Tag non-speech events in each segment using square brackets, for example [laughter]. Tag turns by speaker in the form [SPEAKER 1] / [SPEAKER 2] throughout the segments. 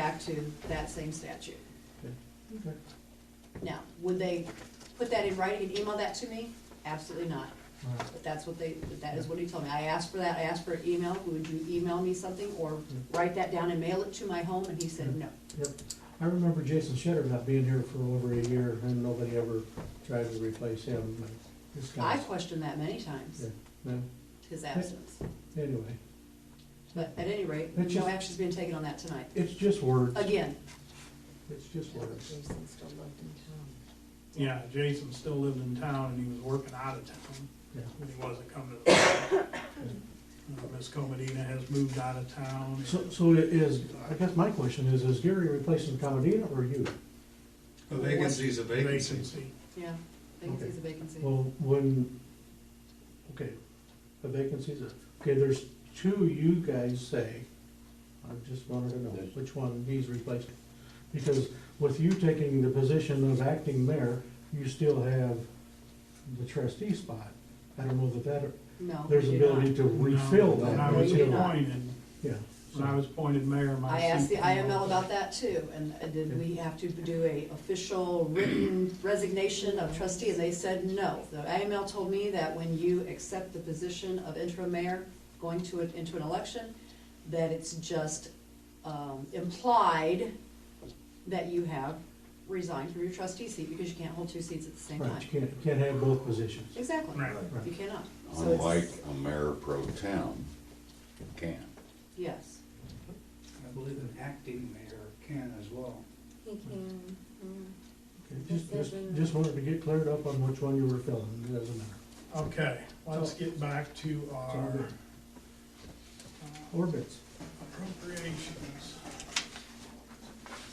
[SPEAKER 1] back to that same statute. Now, would they put that in writing and email that to me? Absolutely not. But that's what they, but that is what he told me. I asked for that, I asked for an email, would you email me something or write that down and mail it to my home? And he said, no.
[SPEAKER 2] Yep, I remember Jason Shetter not being here for over a year, and nobody ever tried to replace him, but this
[SPEAKER 1] I
[SPEAKER 2] guy's,
[SPEAKER 1] questioned that many times,
[SPEAKER 2] no,
[SPEAKER 1] his absence.
[SPEAKER 2] anyway.
[SPEAKER 1] But at any rate,
[SPEAKER 2] That's
[SPEAKER 1] no
[SPEAKER 2] just-
[SPEAKER 1] action's being taken on that tonight.
[SPEAKER 2] It's just words,
[SPEAKER 1] Again,
[SPEAKER 2] it's just words.
[SPEAKER 3] Jason still lived in
[SPEAKER 4] Yeah, Jason still lived in town and he was working out of town,
[SPEAKER 2] Yeah.
[SPEAKER 4] and he wasn't coming to the. Uh, Ms. Comodina has moved out of town.
[SPEAKER 2] So, so it is, I guess my question is, is Gary replacing Comodina or you?
[SPEAKER 5] A vacancy's a vacancy.
[SPEAKER 1] yeah, vacancy's a vacancy.
[SPEAKER 2] Well, when, okay, the vacancies, okay, there's two you guys say, I just wanted to know which one he's replacing. Because with you taking the position of acting mayor, you still have the trustee spot. I don't know that that,
[SPEAKER 1] No, we
[SPEAKER 2] there's
[SPEAKER 1] do
[SPEAKER 2] ability
[SPEAKER 1] not.
[SPEAKER 2] to refill
[SPEAKER 4] When
[SPEAKER 2] that.
[SPEAKER 4] I
[SPEAKER 1] No,
[SPEAKER 4] was
[SPEAKER 1] you do not.
[SPEAKER 4] appointed,
[SPEAKER 2] Yeah.
[SPEAKER 4] when I was appointed mayor, my.
[SPEAKER 1] I asked the
[SPEAKER 4] seat-
[SPEAKER 1] IML about that too, and uh, did we have to do a official written resignation of trustee, and they said no. The IML told me that when you accept the position of interim mayor, going to, an- into an election, that it's just um, implied that you have resigned from your trustee seat, because you can't hold two seats at the same
[SPEAKER 2] Right,
[SPEAKER 1] time.
[SPEAKER 2] you can't, can't have both positions.
[SPEAKER 1] Exactly,
[SPEAKER 4] Right.
[SPEAKER 2] Right.
[SPEAKER 1] you cannot. So it's-
[SPEAKER 6] Unlike a mayor pro tem can.
[SPEAKER 1] Yes,
[SPEAKER 7] I believe an acting mayor can as well.
[SPEAKER 3] town. He can, mm.
[SPEAKER 2] Okay, Just, just, just wanted to get cleared up on which one you were filling, it doesn't matter.
[SPEAKER 4] Okay, let's get back to our
[SPEAKER 2] good. Orbits.
[SPEAKER 4] appropriations.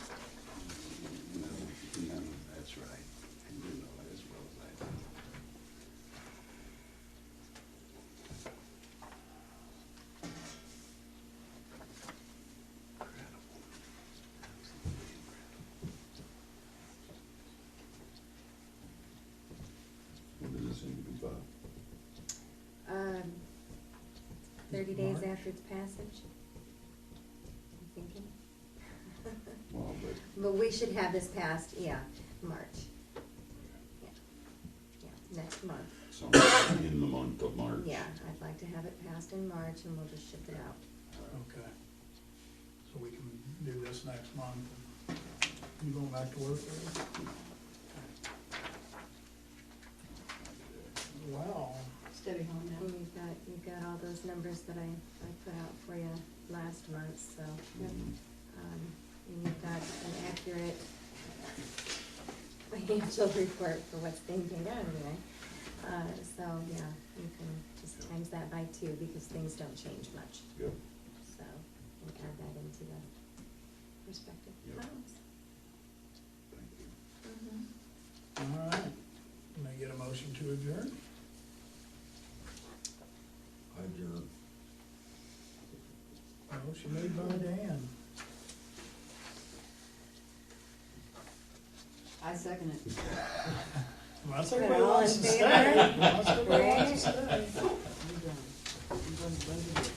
[SPEAKER 6] No, no, that's right. I do know that as well as I do. Incredible. Absolutely incredible. What does this need to be about?
[SPEAKER 3] Um, thirty days
[SPEAKER 7] March?
[SPEAKER 3] after its passage. I'm thinking.
[SPEAKER 6] Well, but
[SPEAKER 3] But we should have this passed, yeah, March. Yeah, Yeah, next month.
[SPEAKER 6] sometime in the month of March.
[SPEAKER 3] Yeah, I'd like to have it passed in March and we'll just ship it out.
[SPEAKER 4] Okay. So we can do this next month. You going back to work? Larry? Well,
[SPEAKER 1] it's Debbie Holland now.
[SPEAKER 3] And you've got, you've got all those numbers that I, I put out for you last month, so.
[SPEAKER 6] Mhm.
[SPEAKER 3] Um, and you've got an accurate financial [laughs] report for what's being paid out anyway. Uh, so, yeah, you can just times that by two because things don't change much,
[SPEAKER 6] Yep.
[SPEAKER 3] so we add that into the respective
[SPEAKER 6] Yep.
[SPEAKER 3] amounts.
[SPEAKER 6] Thank you.
[SPEAKER 4] all right. Can I get a motion to adjourn? Adjourn. Motion made by Dan.
[SPEAKER 1] I second it.
[SPEAKER 4] Unless everybody
[SPEAKER 3] All in
[SPEAKER 4] wants to stay.
[SPEAKER 3] favor?
[SPEAKER 4] Unless everybody wants to stay.
[SPEAKER 1] I'm done. I'm done. I'm done.